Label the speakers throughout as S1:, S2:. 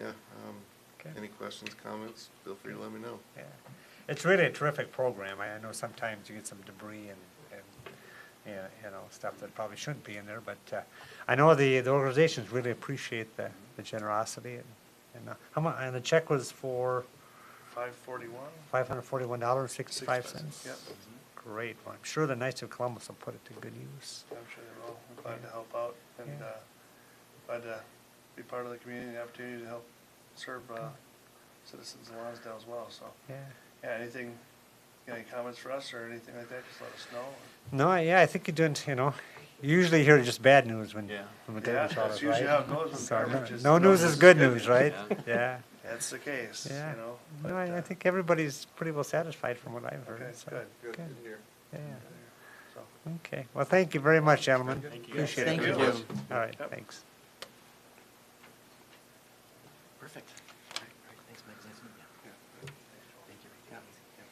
S1: Okay.
S2: um, Any questions, comments, feel free to let me know.
S1: Yeah, it's really a terrific program. I I know sometimes you get some debris and, and, yeah, you know, stuff that probably shouldn't be in there, but, uh, I know the, the organizations really appreciate the, the generosity and, and uh, how mu, and the check was for
S3: Five forty-one?
S1: five hundred forty-one dollars sixty-five cents?
S3: Yep,
S1: Great. Well, I'm sure the Knights of Columbus will put it to good use.
S3: I'm sure they will. I'm glad to help out and,
S1: Yeah.
S3: uh, glad to be part of the community and the opportunity to help serve, uh, citizens in Lonsdale as well, so.
S1: Yeah.
S3: Yeah, anything, any comments for us or anything like that, just let us know.
S1: No, I- yeah, I think you're doing, you know, you usually hear just bad news when,
S4: Yeah.
S1: when the
S3: Yeah,
S1: damage all
S3: that's
S1: is,
S3: usually
S1: right?
S3: how it goes with
S1: So, no-
S3: garbage is
S1: No
S3: no
S1: news
S3: news
S1: is
S3: is
S1: good
S3: good
S1: news, right? Yeah.
S3: That's the case, you
S1: Yeah.
S3: know.
S1: No,
S3: but,
S1: I, I
S3: uh,
S1: think everybody's pretty well satisfied from what I've heard.
S3: Okay,
S1: so,
S3: good.
S1: Yeah,
S3: So,
S1: okay. Well, thank you very much, gentlemen.
S4: Thank you.
S1: Appreciate it.
S5: Thank you.
S3: Thank
S1: All right,
S3: Yep.
S1: thanks.
S4: Perfect. All right, all right, Thanks, Mike. Nice to meet you. Thank you.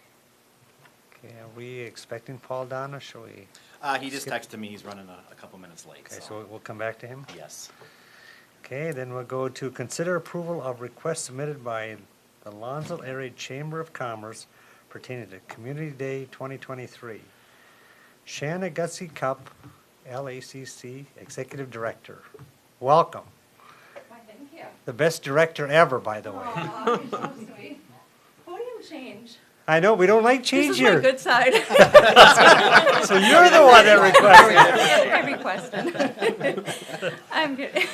S1: Okay, are we expecting Paul Don or shall we?
S4: Uh, he just texted me, he's running a, a couple minutes late,
S1: Okay, so
S4: so,
S1: we'll come back to him.
S4: yes.
S1: Okay, then we'll go to consider approval of request submitted by the Lonzo Area Chamber of Commerce pertaining to Community Day 2023. Shanna Gussie Cup, LACC Executive Director. Welcome.
S6: Why, thank you.
S1: The best director ever, by the way.
S6: Aw, you're so sweet. Podium change.
S1: I know, we don't like change
S6: This is my
S1: here.
S6: good side.
S1: So you're the one that requested.
S6: I requested. I'm good.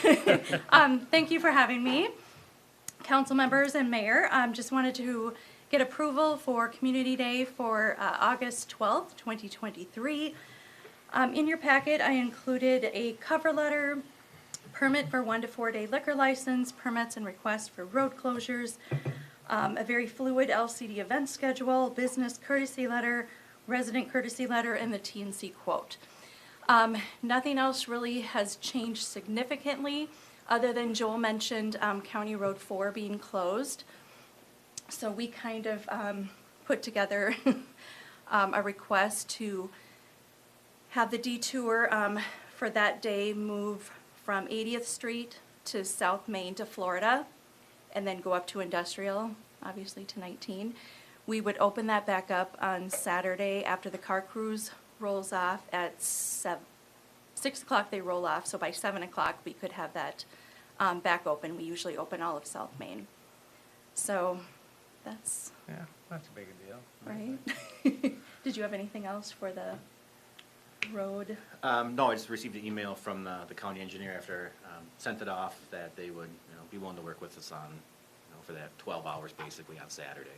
S6: Um, thank you for having me. Council members and mayor, um, just wanted to get approval for Community Day for, uh, August twelfth, twenty twenty-three. Um, in your packet, I included a cover letter, permit for one to four day liquor license, permits and requests for road closures, um, a very fluid LCD event schedule, business courtesy letter, resident courtesy letter, and the TNC quote. Um, nothing else really has changed significantly, other than Joel mentioned, um, County Road Four being closed. So we kind of, um, put together, um, a request to have the detour um, for that day move from 80th Street to South Main to Florida, and then go up to Industrial, obviously to 19. We would open that back up on Saturday after the car cruise rolls off at 7, 6 o'clock they roll off, so by 7 o'clock we could have that um, back open. We usually open all of South Main. So that's,
S1: Yeah, That's a big deal.
S6: right? Did you have anything else for the road?
S4: Um, no, I just received an email from the, the county engineer after, um, sent it off, that they would, you know, be willing to work with us on, you know, for that twelve hours basically on Saturday.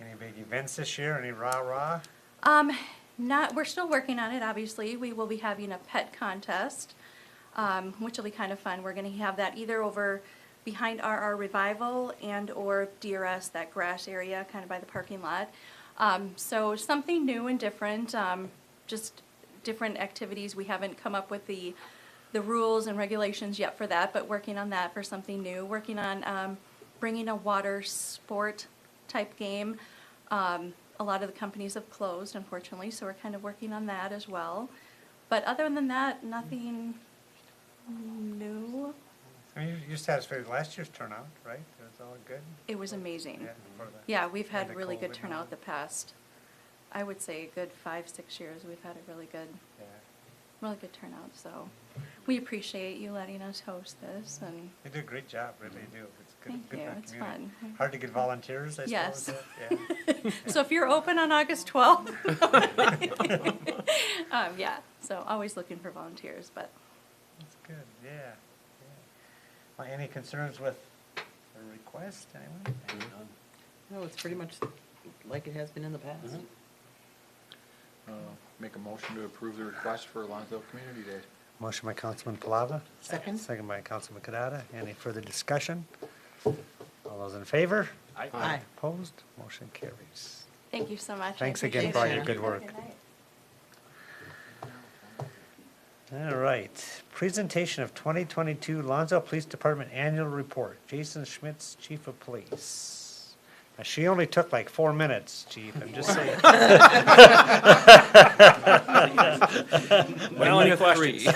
S1: Any big events this year? Any rah-rah?
S6: Um, not, we're still working on it, obviously. We will be having a pet contest, um, which will be kind of fun. We're gonna have that either over behind RR Revival and or DRS, that grass area kind of by the parking lot. Um, so something new and different, um, just different activities. We haven't come up with the, the rules and regulations yet for that, but working on that for something new. Working on, um, bringing a water sport type game. Um, a lot of the companies have closed, unfortunately, so we're kind of working on that as well. But other than that, nothing new.
S1: I mean, you- you're satisfied with last year's turnout, right? It was all good?
S6: It was amazing.
S1: Yeah, for the-
S6: Yeah, we've
S1: for
S6: had
S1: the
S6: really good
S1: COVID and all.
S6: turnout the past, I would say, a good five, six years. We've had a really good,
S1: Yeah.
S6: really good turnout, so we appreciate you letting us host this and Mm-hmm.
S1: You do a great job, really you do. It's good.
S6: Thank
S1: good
S6: you,
S1: for the
S6: it's
S1: community.
S6: fun. Mm-hmm.
S1: Hard to get volunteers, I
S6: Yes.
S1: suppose. yeah.
S6: So if you're open on August 12th, um, yeah, so always looking for volunteers, but
S1: That's good, yeah. yeah. Well, any concerns with the request, anyone?
S5: No, it's pretty much like it has been in the past.
S7: Uh, Make a motion to approve the request for Lonzo Community Day.
S1: Motion by Councilman Palava.
S5: Second.
S1: Second by Councilman Kadada. Any further discussion? All those in favor?
S4: Aye.
S5: Aye.
S1: Opposed? Motion carries.
S6: thank you so much. I
S1: Thanks again
S6: appreciate
S1: for all
S6: it.
S1: your good work.
S6: Good night.
S1: All right. Presentation of 2022 Lonzo Police Department Annual Report. Jason Schmitz, Chief of Police. Now, She only took like four minutes, Chief, I'm just saying.
S4: Well, any questions?